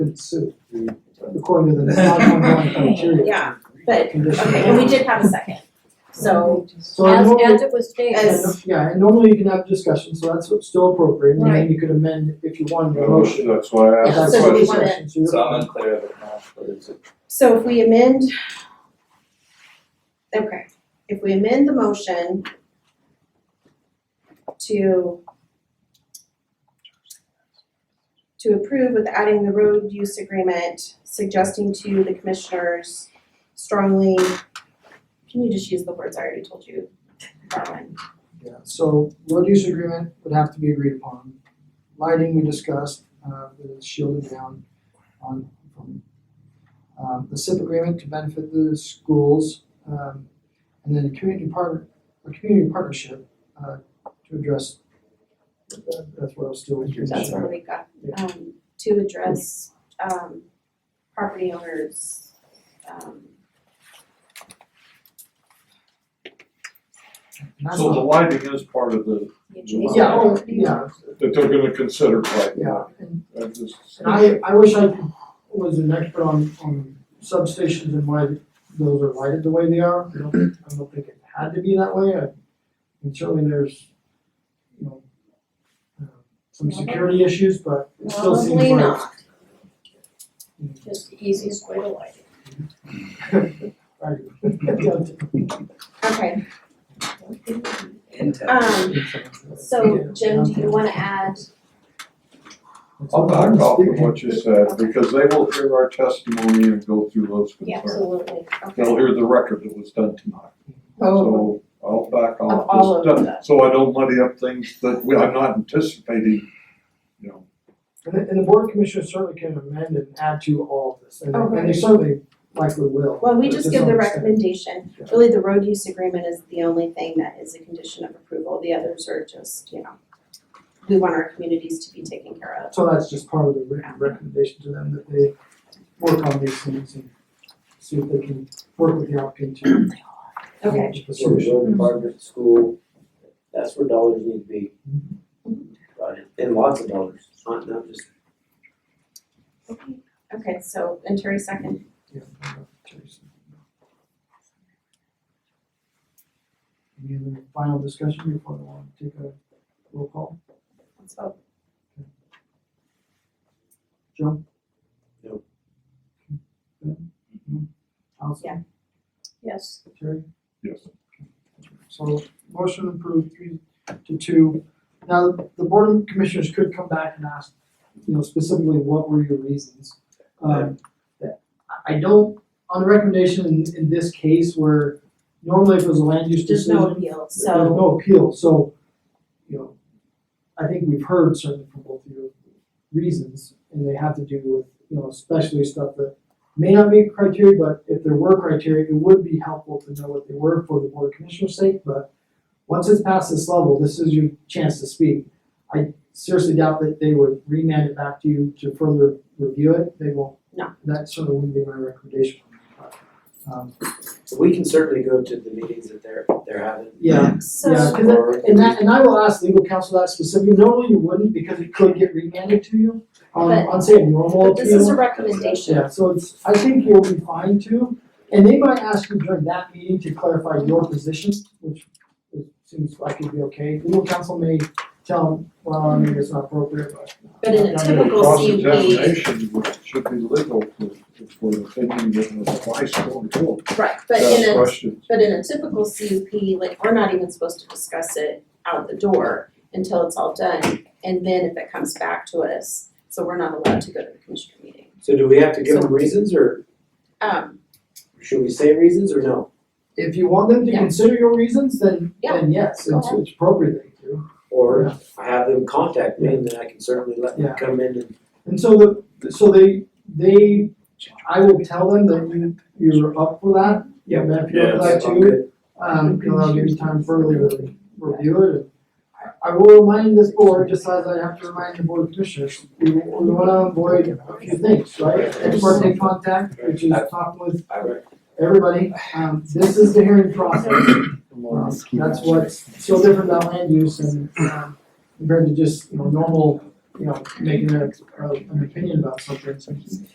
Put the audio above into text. didn't sue, according to the non-conforming criteria. Yeah, but- Condition. Okay, and we did have a second, so, So I As, normally- as it was stated, As- Yeah, and normally you can have discussion, so that's still appropriate, and then you could amend if you want a motion. That's why I That's asked the So do we question. wanna- discussion, so you're- So I'm unclear of it now, but it's a so if we amend. Okay, if we amend the motion to to approve with adding the road use agreement, suggesting to the commissioners strongly, can you just use the words I already told you? That one, Yeah, so road use agreement would have to be agreed upon. Lighting we discussed, uh, with it shielded down on, from, um, the SIP agreement to benefit the schools, um, and then a community partner, a community partnership, uh, to address, that- that's what I was doing. that's where we got, um, to address, um, property owners, um, And that's So the not- lighting is part of the, Yeah, oh, yeah, that they're gonna consider lighting. yeah, and I just- And I, I wish I was an expert on, on substations and why those are lighted the way they are. I don't, I don't think it had to be that way. I, and certainly there's, you know, uh, some security issues, but it still seems like. Mm. probably not. just the easiest way to light it. Right. Yeah. Okay, um, so Jim, do you wanna add, I'll back off of what you said, because they will hear our testimony and go through those yeah, concerns. absolutely, okay. They'll hear the record that was done tonight, Oh. so I'll back Of all off of this done, that. so I don't muddy up things that we, I'm not anticipating, you know. And the, and the board commissioners certainly can amend and add to all of this, and, and Okay. they certainly likely will. Well, we but just to give some the extent. recommendation, Yeah. really the road use agreement is the only thing that is a condition of approval, the others are just, you know, we want our communities to be taken care of. So that's just part of the re- recommendation to them that they work on these things and see if they can work with the applicant to. Okay, The So the solution. road department, school, that's where dollars need to be. Mm-hmm. Got it. And lots of dollars, not, not just okay, so, and Terry second, Yeah. Any other final discussion before I want to take a roll call? let's vote. Joe? No. Ben? Allison? Yeah. Yes, Terry? Yes. So motion approved three to two. Now, the board of commissioners could come back and ask, you know, specifically, what were your reasons? Um, that- I I don't, on the recommendation in, in this case where normally if it was a land use There's decision. no appeal, There's so, no appeal, so, you know, I think we've heard certainly from both of your reasons, and they have to do with, you know, especially stuff that may not meet criteria, but if there were criteria, it would be helpful to know what they were for the board commissioner's sake, but once it's past this level, this is your chance to speak. I seriously doubt that they would remand it back to you to further review it, they won't. No. That certainly wouldn't be my recommendation, but, um, So we can certainly go to the meetings that they're, they're having. yeah, so. yeah, 'cause that- and that, and I will ask legal counsel that specifically, normally you wouldn't because it could get remanded to you. Um, But- I'd say a normal But this is appeal, a recommendation, yeah, so it's, I think you'll be fine too. And they might ask you during that meeting to clarify your position, which it seems like it'd be okay. Legal counsel may tell them, well, I mean, it's not appropriate, but. uh, But in a I mean, typical- Typical CUP. Cross-examination would- should be legal for, for the opinion that was twice on the court. right, but Ask in a questions. But in a typical CUP, like, we're not even supposed to discuss it out the door until it's all done, and then if it comes back to us, so we're not allowed to go to the commissioner meeting. So do we have to give them reasons or Um, should we say reasons or no? If you want them to Yeah. consider your reasons, then, Yeah. then yes, Go it's, ahead. it's appropriate they do. Or have them contact me and then I can certainly let Yeah. them come in and And so the, so they, they, I will tell them that you, you're up for that. Yeah. And if you're up for that Yes, I'm too, good. um, you know, that'll give you time further to review it. I- I will remind this board, just as I have to remind the board of commissioners, we, we wanna avoid a few things, right? Ex parte contact, which is talking with I would- everybody, um, this is the hearing process. Um, That's what's so different about land use and, um, compared to just, you know, normal you know, making a, a- an opinion about something, so